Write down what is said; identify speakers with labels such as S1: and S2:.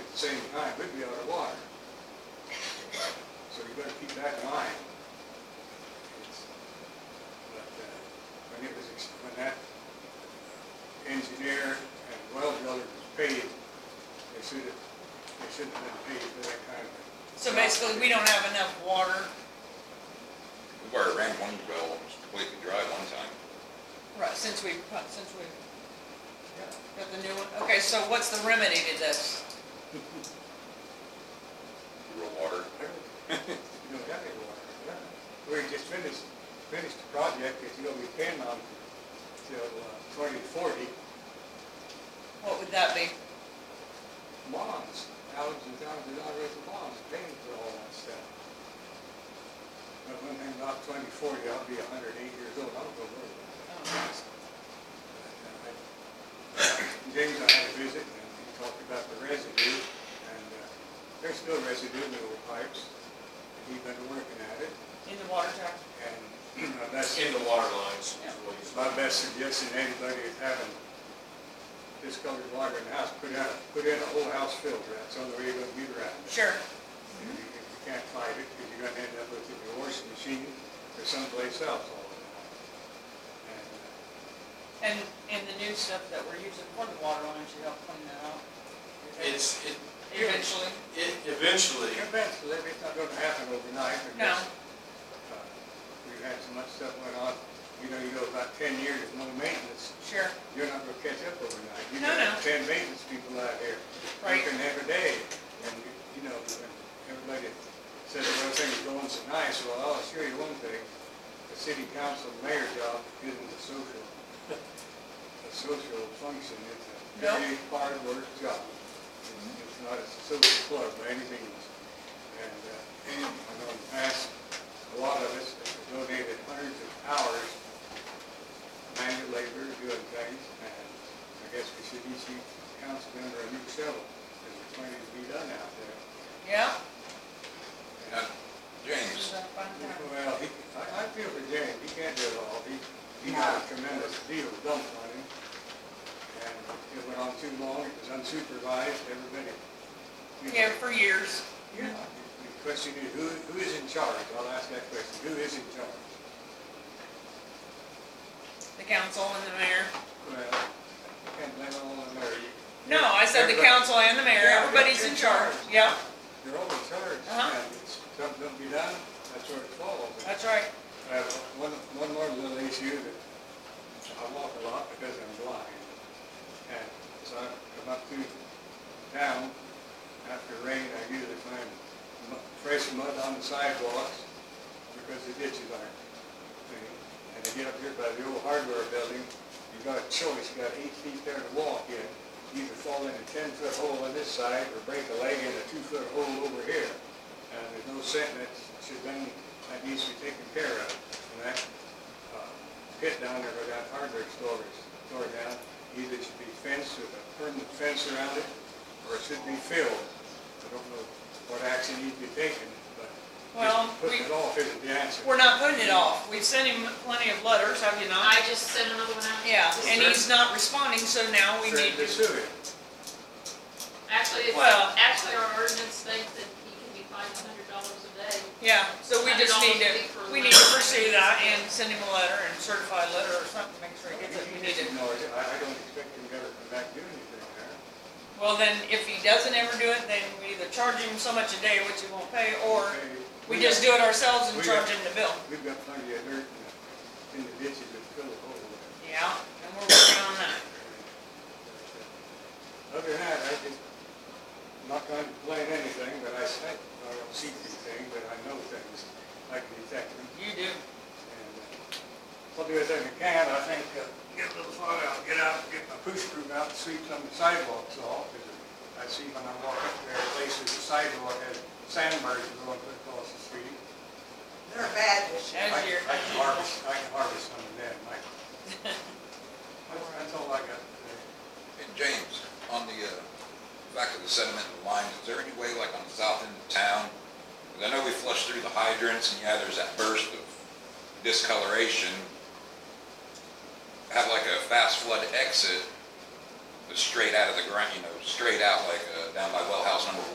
S1: same time, we'd be out of water. So you better keep that in mind. It's- But uh, when it was, ex- when that uh, engineer and well driller was paid, they should have, they shouldn't have been paid for that kind of.
S2: So basically, we don't have enough water.
S3: We've already ran one well, almost completely dry one time.
S2: Right. Since we, since we got the new one. Okay, so what's the remedy to this?
S3: Real water.
S1: You don't have any water, yeah. We just finished, finished the project, it's gonna be paying on till uh, twenty forty
S2: What would that be?
S1: bonds, thousands and thousands of dollars worth of bonds, paying for all that stuff. But when I'm not twenty forty, I'll be hundred and eight years old, I don't go worry about that.
S2: Um,
S1: James and I had a visit, and he talked about the residue, and uh, there's still residue in the old pipes, and he's been working at it,
S2: In the water tower?
S1: and uh, that's.
S4: in the water lines. is what he's-
S1: My best suggestion, to anybody is having discolored water in the house, put out, put in a whole house filter, that's the only way you're gonna get around it.
S2: Sure.
S1: If you if you can't fight it, because you're gonna end up with your washing machine or someplace else all the time. And, uh,
S2: And, and the new stuff that we're using for the water line should help clean that out.
S4: It's, it,
S2: Eventually.
S4: it eventually,
S1: Eventually, it's not gonna happen overnight,
S2: No.
S1: because uh, we've had so much stuff went on, you know, you go about ten years, with no maintenance,
S2: Sure.
S1: You're not gonna catch up overnight. You
S2: No,
S1: got
S2: no.
S1: Ten maintenance people out here,
S2: Right.
S1: working every day, and, you- you know, and everybody says everything's going so nice, well, I'll assure you one thing, the city council mayor job isn't a social, a social function, it's
S2: No.
S1: a very hard work job. It's- It's not a social club or anything, and, uh, I know in the past, a lot of us have donated hundreds of hours manual labor, doing things, and I guess we should each council member a new shovel, because it's plenty to be done out there.
S2: Yeah?
S3: Now, uh, James,
S1: Well, he, I, I feel for James, he can't do it all, he, he got a tremendous deal dumped on him. And it went on too long, it was unsupervised, everybody. you know,
S2: Yeah, for years.
S1: Yeah, the question is, who, who is in charge? I'll ask that question, who is in charge?
S2: The council and the mayor.
S1: Well, I can't blame it all on Larry.
S2: No, I said the
S1: Everybody-
S2: council and the mayor.
S1: Yeah,
S2: Everybody's in charge. Yeah,
S1: They're all in charge,
S2: Uh-huh.
S1: and it's, something don't be done, that's where it falls. And
S2: that's right.
S1: I have one, one more little issue that I walk a lot because I'm blind. And so I come up through town, after rain, I usually find mu- fresh mud on the sidewalks because the ditches aren't clean. And to get up here by the old hardware building, you've got a choice, you've got eight feet there to walk in. Either fall in a ten-foot hole on this side or break a leg in a two-foot hole over here. And there's no sense, that should been, that needs to be taken care of. And that uh, pit down there where that hardware store is, tore down, either it should be fenced with a permanent fence around it, or it should be filled. I don't know what action needs to be taken, but
S2: Well,
S1: just putting
S2: we-
S1: it off isn't the answer.
S2: We're not putting it off. We've sent him plenty of letters, have you not?
S5: I just sent another one out.
S2: Yeah, and he's not responding, so now we
S1: Send
S2: need
S1: the
S2: to.
S1: sewer.
S5: Actually, it's,
S2: Well-
S5: actually our ordinance states that he can be fined a hundred dollars a day.
S2: Yeah, so we just need
S5: $100 a week for
S2: to, we
S5: the
S2: need to
S5: letter.
S2: pursue that and send him a letter and certified letter or something, make sure he gets it. We need
S1: He
S2: to.
S1: ignores it. I, I don't expect him to ever come back and do anything there.
S2: Well, then, if he doesn't ever do it, then we either charge him so much a day, which he won't pay, or
S1: Okay,
S2: we
S1: we
S2: just do
S1: got-
S2: it ourselves and
S1: we
S2: charge
S1: got-
S2: him the bill.
S1: We've got plenty of dirt in the- in the ditches that fill the hole there.
S2: Yeah, and we're working on that.
S1: Other than that, I just, I'm not going to complain anything, but I say, I don't see anything, but I know things, I can detect them.
S2: You do.
S1: And uh, I'll do everything I can, I think, uh, get a little farther, I'll get out, get my push broom out, and sweep some sidewalks off. 'cause I see when I walk up there, places, the sidewalk has sandbars going across the street.
S6: They're bad this
S1: I
S6: year.
S2: As
S1: I
S2: your,
S1: can harvest, I can harvest some of that, Mike. That's that's all I got today.
S3: hey, James, on the, uh, back of the sediment and lines, is there any way, like on the south end of town? 'cause I know we flushed through the hydrants and yeah, there's that burst of discoloration. Have like a fast flood exit, that's straight out of the ground, you know, straight out, like, uh, down by Wellhouse